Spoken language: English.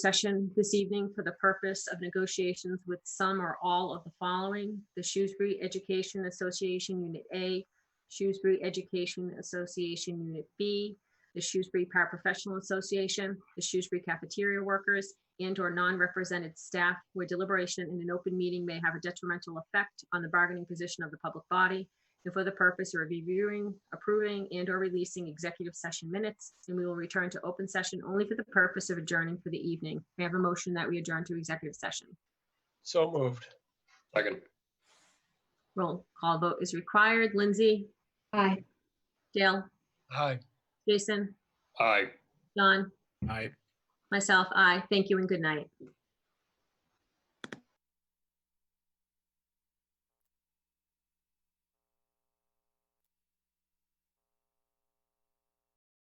session this evening for the purpose of negotiations with some or all of the following. The Shrewsbury Education Association Unit A, Shrewsbury Education Association Unit B, the Shrewsbury Paraprofessional Association, the Shrewsbury Cafeteria Workers, and/or non-represented staff where deliberation in an open meeting may have a detrimental effect on the bargaining position of the public body, and for the purpose of reviewing, approving, and/or releasing executive session minutes, and we will return to open session only for the purpose of adjourning for the evening. May I have a motion that we adjourn to executive session? So moved. Second, Roll call vote is required. Lindsay, Aye. Dale, Aye. Jason, aye. John, Aye. myself, I Thank you and good night.